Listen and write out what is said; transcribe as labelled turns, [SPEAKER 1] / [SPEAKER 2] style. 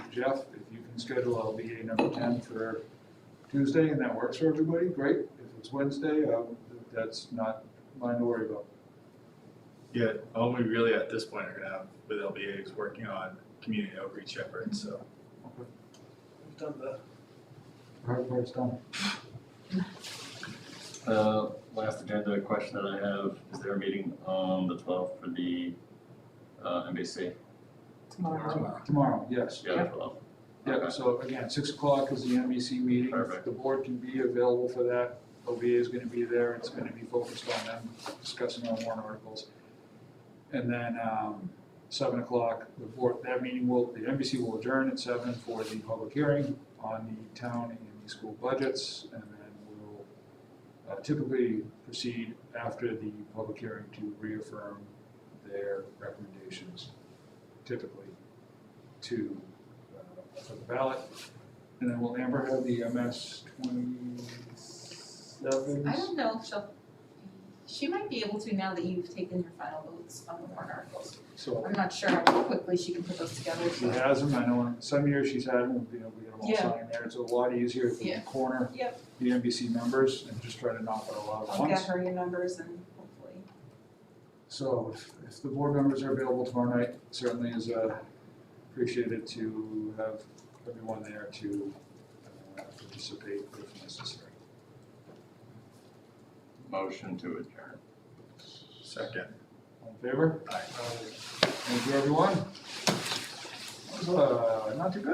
[SPEAKER 1] Jeff, if you can schedule LBA number ten for Tuesday and that works for everybody, great. If it's Wednesday, uh, that's not mine to worry about.
[SPEAKER 2] Yeah, all we really at this point are gonna have with LBA is working on community outreach efforts, so.
[SPEAKER 1] Okay.
[SPEAKER 3] We've done the,
[SPEAKER 1] Hard part's done.
[SPEAKER 4] Uh, last agenda question that I have, is there a meeting on the twelfth for the, uh, NBC?
[SPEAKER 5] tomorrow.
[SPEAKER 1] Tomorrow, yes.
[SPEAKER 4] Yeah, the twelfth.
[SPEAKER 1] Yeah,
[SPEAKER 4] Okay.
[SPEAKER 1] so again, six o'clock is the NBC meeting.
[SPEAKER 4] Perfect.
[SPEAKER 1] The board can be available for that. OBA is gonna be there. It's gonna be focused on them discussing our warrant articles. And then, um, seven o'clock, the board, that meeting will, the NBC will adjourn at seven for the public hearing on the town and the school budgets. And then we'll uh, typically proceed after the public hearing to reaffirm their recommendations, typically to, uh, for the ballot. And then will Amber have the MS twenty-seven?
[SPEAKER 5] I don't know if she'll, she might be able to now that you've taken your final votes on the warrant articles.
[SPEAKER 1] So
[SPEAKER 5] I'm not sure how quickly she can put those together.
[SPEAKER 1] if she has them, I know in some years she's had them, you know, we get them all
[SPEAKER 5] Yeah.
[SPEAKER 1] signed there. It's a lot easier if we
[SPEAKER 5] Yeah.
[SPEAKER 1] corner
[SPEAKER 5] Yep.
[SPEAKER 1] the NBC members and just try to knock out a lot at
[SPEAKER 5] I'll get
[SPEAKER 1] once.
[SPEAKER 5] her your numbers and hopefully.
[SPEAKER 1] So if, if the board members are available tomorrow night, certainly is uh, appreciated to have everyone there to uh, participate if necessary.
[SPEAKER 4] Motion to adjourn.
[SPEAKER 2] Second.
[SPEAKER 1] All in favor?
[SPEAKER 2] Aye.
[SPEAKER 1] Thank you, everyone. That was, uh, not too bad.